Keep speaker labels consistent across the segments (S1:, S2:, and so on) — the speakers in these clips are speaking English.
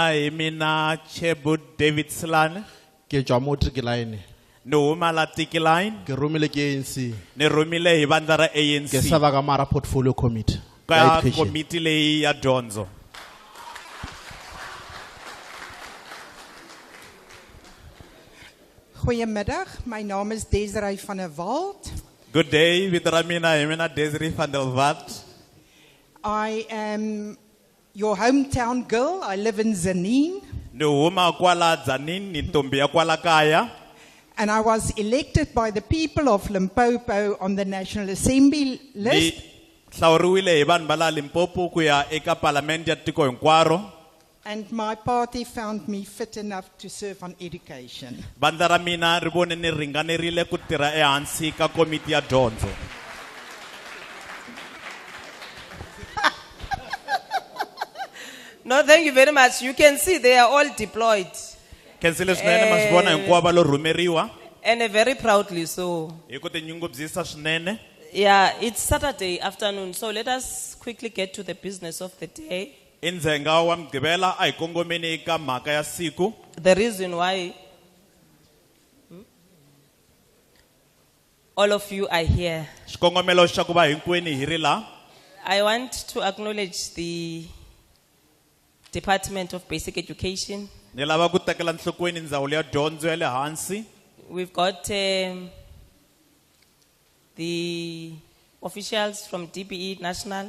S1: Hi, mina Chebut David Slane,
S2: ke tswa mo trick line
S1: ni huma la Tiki line,
S2: ke romile ke anc
S1: ni rhumile hi vandla ra
S2: ke
S1: ANC
S2: serva ka mara portfolio committee ya
S1: ka
S2: education.
S1: komiti leyi ya dyondzo.
S3: Goedemiddag, mijn naam is Desiree van der Walt.
S1: Good day, vito ra mina hi mina Desiree van der Walt.
S3: I am your hometown girl. I live in Zanin.
S1: Ni huma kwala Dzanini, ni ntombi ya kwala kaya.
S3: And I was elected by the people of Limpopo on the National Assembly
S1: Ni
S3: list.
S1: hlawuriwile hi vanhu va la Limpopo ku ya eka palamende ya tiko hinkwaro.
S3: And my party found me fit enough to serve on education.
S1: Vandla ra mina ri vone ni ringanerile ku tirha ehansi ka komiti ya dyondzo.
S4: No, thank you very much. You can see they are all deployed
S1: Khensile swinene ma swi vona hinkwavo va lo rhumeriwa
S4: and uh, very proudly so.
S1: hi ku tinyungubyisa swinene.
S4: Yeah, it's Saturday afternoon, so let us quickly get to the business of the day.
S1: i ndzhenga wa mugqivela a hi kongomeni eka mhaka ya siku
S4: The reason why Hmm? all of you are here.
S1: xikongomelo xa ku va hinkwenu hi ri laha
S4: I want to acknowledge the Department of Basic Education.
S1: ni lava ku tekela nhlokweni ndzawulo ya dyondzo ya le hansi
S4: We've got um, the officials from DBE National.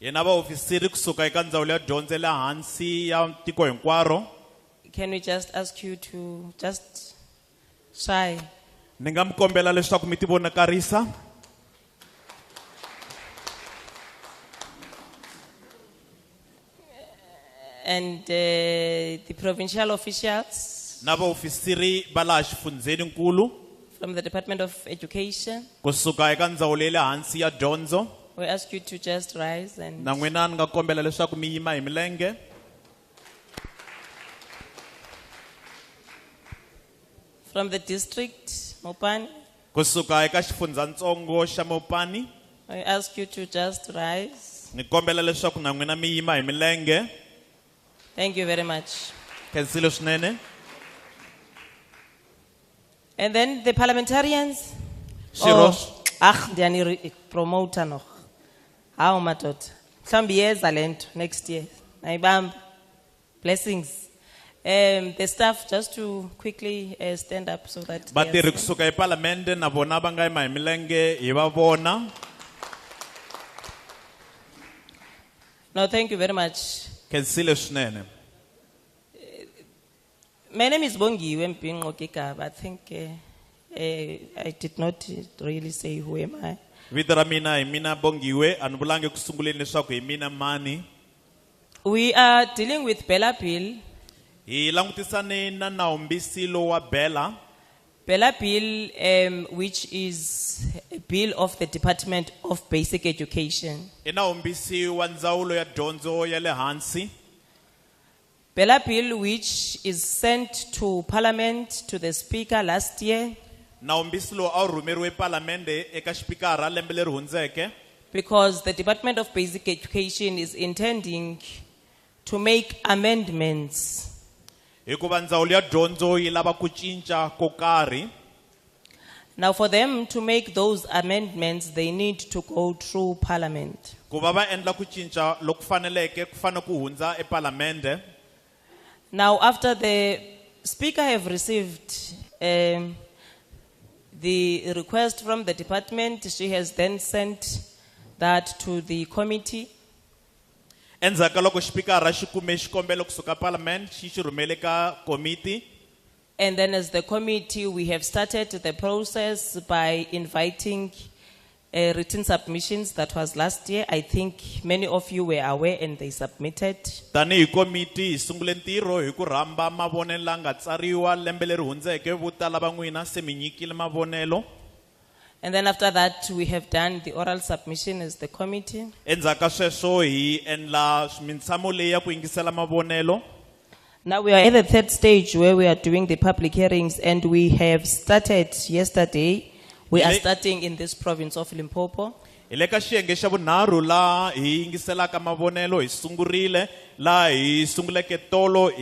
S1: hi na vaofisiri kusuka eka ndzawulo ya dyondzo ya le hansi ya tiko hinkwaro
S4: Can we just ask you to just try?
S1: ni nga mi kombela leswaku mi tivonakarisa
S4: And uh, the provincial officials
S1: na vaofisiri va laha xifundzeninkulu
S4: from the Department of Education,
S1: kusuka eka ndzawulo ya le hansi ya dyondzo
S4: we ask you to just rise and
S1: na n'wina ni nga kombela leswaku mi yima hi milenge
S4: from the district, Mopan,
S1: kusuka eka xifundzatsongo xa mopani
S4: we ask you to just rise.
S1: ni kombela leswaku na n'wina mi yima hi milenge
S4: Thank you very much.
S1: khensile swinene
S4: And then the parliamentarians. Oh.
S1: Xirho-
S4: ah, ndiyani promoter no. Hawu madoda. Mhlambi yeza lento next year. Nayibamba. Blessings. Um the staff just to quickly uh, stand up so that they are
S1: vatirhi
S4: seen.
S1: kusuka epalamende na vona va nga yima hi milenge hi va vona
S4: No, thank you very much.
S1: khensile swinene
S4: My name is Bongiwe Mpingo Kikaba. I think uh, uh, I did not really say who am I.
S1: vito ra mina hi mina bongiwe a ni vulangi ku sunguleni leswaku hi mina mani
S4: We are dealing with Bella Bill.
S1: hi langutisane na nawumbisi lowu wa bela
S4: Bella Bill, um, which is a bill of the Department of Basic Education.
S1: i nawumbisi wa ndzawulo ya dyondzo ya le hansi
S4: Bella Bill, which is sent to Parliament to the Speaker last year
S1: nawumbisi lowu a wu rhumeriwe palamende eka xipikara lembe leri hundzeke
S4: because the Department of Basic Education is intending to make amendments
S1: hikuva ndzawulo ya dyondzo yi lava ku cinca ko karhi
S4: Now, for them to make those amendments, they need to go through Parliament.
S1: ku va va endla ku cinca loku faneleke ku fanele ku hundza epalamende
S4: Now, after the Speaker have received um, the request from the Department, she has then sent that to the committee.
S1: endzhaku ka loko xipikara xi kume xikombelo kusuka palamende xi xi rhumele ka komiti
S4: And then, as the committee, we have started the process by inviting uh, written submissions. That was last year. I think many of you were aware and they submitted.
S1: tanihi komiti hi sungule ntirho hi ku rhamba mavonelo la nga tsariwa lembe leri hundzeke vo tala va n'wina se mi nyikile mavonelo
S4: And then after that, we have done the oral submission as the committee.
S1: endzhaku ka sweswo hi endla mintshamo leyi ya ku yingisela mavonelo
S4: Now we are at the third stage where we are doing the public hearings and we have started yesterday. We are
S1: Ele-
S4: starting in this province of Limpopo.
S1: hi le ka xiyenge xa vunharhu laha hi yingiselaka mavonelo hi sungurile laha hi sunguleke tolo hi